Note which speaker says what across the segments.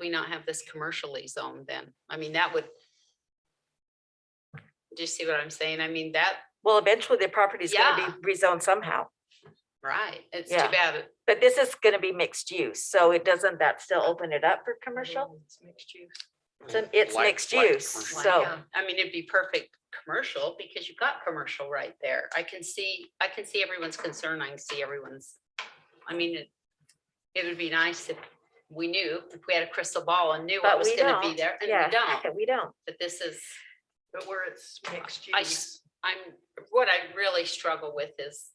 Speaker 1: we not have this commercially zoned then? I mean, that would. Do you see what I'm saying? I mean, that,
Speaker 2: Well, eventually the property's
Speaker 1: Yeah.
Speaker 2: gonna be rezoned somehow,
Speaker 1: right, it's too
Speaker 2: Yeah.
Speaker 1: bad. it-
Speaker 2: but this is gonna be mixed use, so it doesn't that still open it up for commercial?
Speaker 1: It's mixed use.
Speaker 2: It's an- it's
Speaker 3: Light-
Speaker 2: mixed
Speaker 3: light
Speaker 2: use,
Speaker 3: commercial.
Speaker 1: Why
Speaker 2: So-
Speaker 1: not? I mean, it'd be perfect commercial because you've got commercial right there. I can see, I can see everyone's concern. I can see everyone's. I mean, it, it would be nice if we knew, if we had a crystal ball and knew
Speaker 2: But
Speaker 1: what was
Speaker 2: we
Speaker 1: gonna be
Speaker 2: don't,
Speaker 1: there and we
Speaker 2: yeah,
Speaker 1: don't,
Speaker 2: we don't.
Speaker 1: but this is.
Speaker 4: But where it's mixed
Speaker 1: I
Speaker 4: use.
Speaker 1: I'm, what I really struggle with is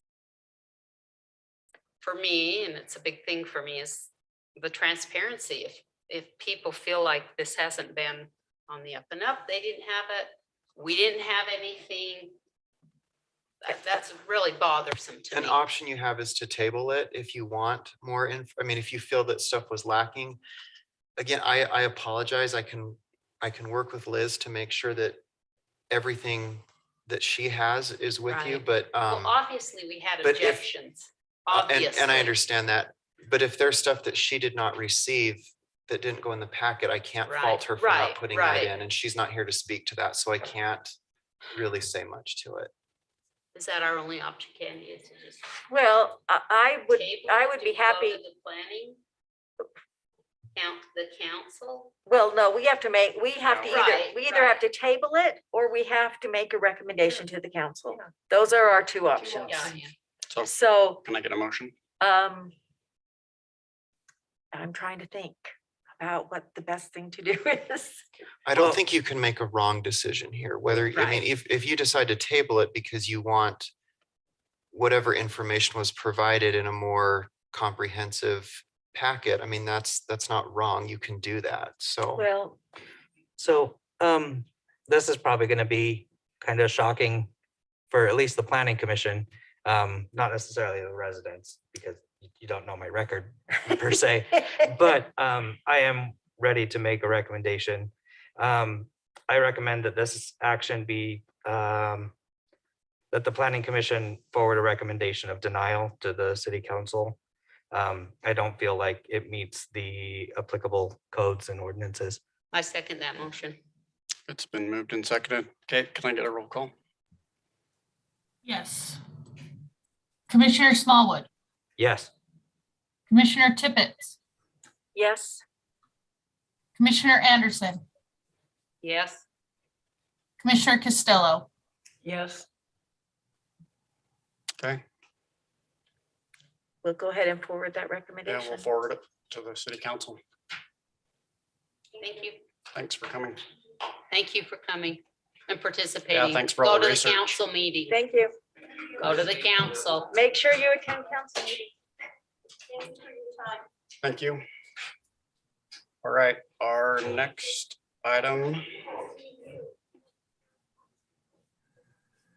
Speaker 1: for me, and it's a big thing for me, is the transparency. If, if people feel like this hasn't been on the up and up, they didn't have it, we didn't have anything. that- That's really bothersome to
Speaker 3: An
Speaker 1: me.
Speaker 3: option you have is to table it if you want more inf- I mean, if you feel that stuff was lacking. Again, I, I apologize. I can, I can work with Liz to make sure that everything that she has is with you,
Speaker 1: Right.
Speaker 3: but,
Speaker 1: Well,
Speaker 3: um,
Speaker 1: obviously, we had
Speaker 3: but if-
Speaker 1: objections,
Speaker 3: uh, and,
Speaker 1: obviously.
Speaker 3: and I understand that. But if there's stuff that she did not receive that didn't go in the packet, I can't
Speaker 1: Right,
Speaker 3: fault her for
Speaker 1: right,
Speaker 3: not putting that
Speaker 1: right.
Speaker 3: in, and she's not here to speak to that, so I can't really say much to it.
Speaker 1: Is that our only option, Candy, is to just?
Speaker 2: Well, I, I would,
Speaker 1: table
Speaker 2: I
Speaker 1: it?
Speaker 2: would
Speaker 1: Do
Speaker 2: be
Speaker 1: we go to
Speaker 2: happy,
Speaker 1: The planning? Count, the council?
Speaker 2: well, no, we have to make, we have to either,
Speaker 1: Right,
Speaker 2: we either have
Speaker 1: right.
Speaker 2: to table it or we have to make a recommendation to the council.
Speaker 4: Yeah.
Speaker 2: Those are our two options.
Speaker 1: Yeah, yeah.
Speaker 5: So
Speaker 2: So
Speaker 5: can I get a motion?
Speaker 2: Um. I'm trying to think about what the best thing to do is.
Speaker 3: I don't
Speaker 5: Well-
Speaker 3: think you can make a wrong decision here, whether, I
Speaker 1: Right.
Speaker 3: mean, if, if you decide to table it because you want whatever information was provided in a more comprehensive packet, I mean, that's, that's not wrong. You can do that. So
Speaker 2: Well,
Speaker 6: So um, this is probably gonna be kind of shocking for at least the planning commission, um, not necessarily the residents, because you- you don't know my record per se. But um, I am ready to make a recommendation. Um, I recommend that this action be um, that the planning commission forward a recommendation of denial to the city council. Um, I don't feel like it meets the applicable codes and ordinances.
Speaker 1: I second that motion.
Speaker 5: It's been moved and seconded. Okay, can I get a roll call?
Speaker 7: Yes. Commissioner Smallwood,
Speaker 6: Yes.
Speaker 7: Commissioner Tippett,
Speaker 2: Yes,
Speaker 7: Commissioner Anderson,
Speaker 1: Yes.
Speaker 7: Commissioner Costello,
Speaker 4: Yes.
Speaker 5: Okay,
Speaker 2: we'll go ahead and forward that
Speaker 5: yeah, we'll
Speaker 2: recommendation.
Speaker 5: forward it to the city council.
Speaker 1: Thank you.
Speaker 5: Thanks for coming.
Speaker 1: Thank you for coming and participating.
Speaker 5: thanks for all the
Speaker 1: Go to
Speaker 5: research.
Speaker 1: the council meeting.
Speaker 2: Thank you.
Speaker 1: Go to the council.
Speaker 2: Make sure you attend council meeting.
Speaker 5: Thank you. All right, our next item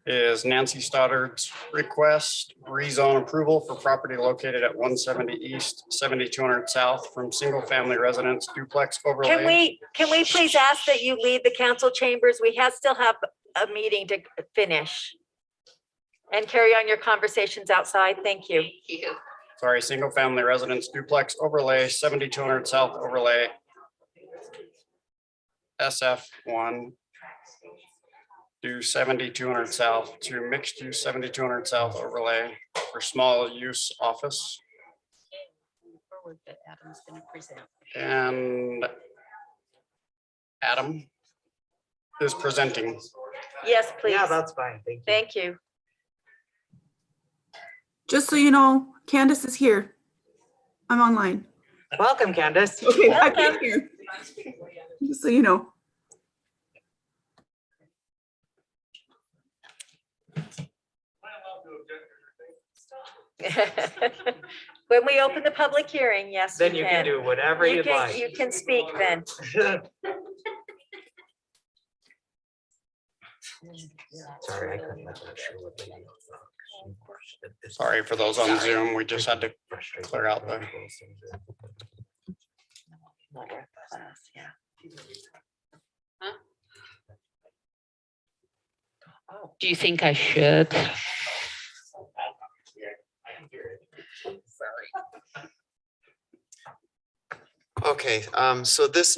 Speaker 5: is Nancy Stoddard's request rezone approval for property located at one seventy east, seventy-two hundred south from single-family residence duplex overlay.
Speaker 2: Can we, can we please ask that you leave the council chambers? We have, still have a meeting to finish. And carry on your conversations outside. Thank you.
Speaker 1: Thank you.
Speaker 5: Sorry, single family residence duplex overlay, seventy-two hundred south overlay. SF one. Do seventy-two hundred south to mixed use seventy-two hundred south overlay for small use office.
Speaker 1: Forward that Adam's gonna present.
Speaker 5: And Adam is presenting.
Speaker 2: Yes, please.
Speaker 6: Yeah, that's fine. Thank you.
Speaker 2: Thank you.
Speaker 8: Just so you know, Candace is here. I'm online.
Speaker 6: Welcome, Candace.
Speaker 8: Okay, I can hear. Just so you know.
Speaker 2: When we open the public hearing, yes.
Speaker 6: Then you can do whatever
Speaker 2: You
Speaker 6: you'd
Speaker 2: can, you
Speaker 6: like.
Speaker 2: can speak then.
Speaker 6: Sorry, I couldn't let that show up.
Speaker 5: Sorry for those on Zoom. We just had to, clear out the-
Speaker 1: Do you think I should?
Speaker 3: Okay, Okay, um, so this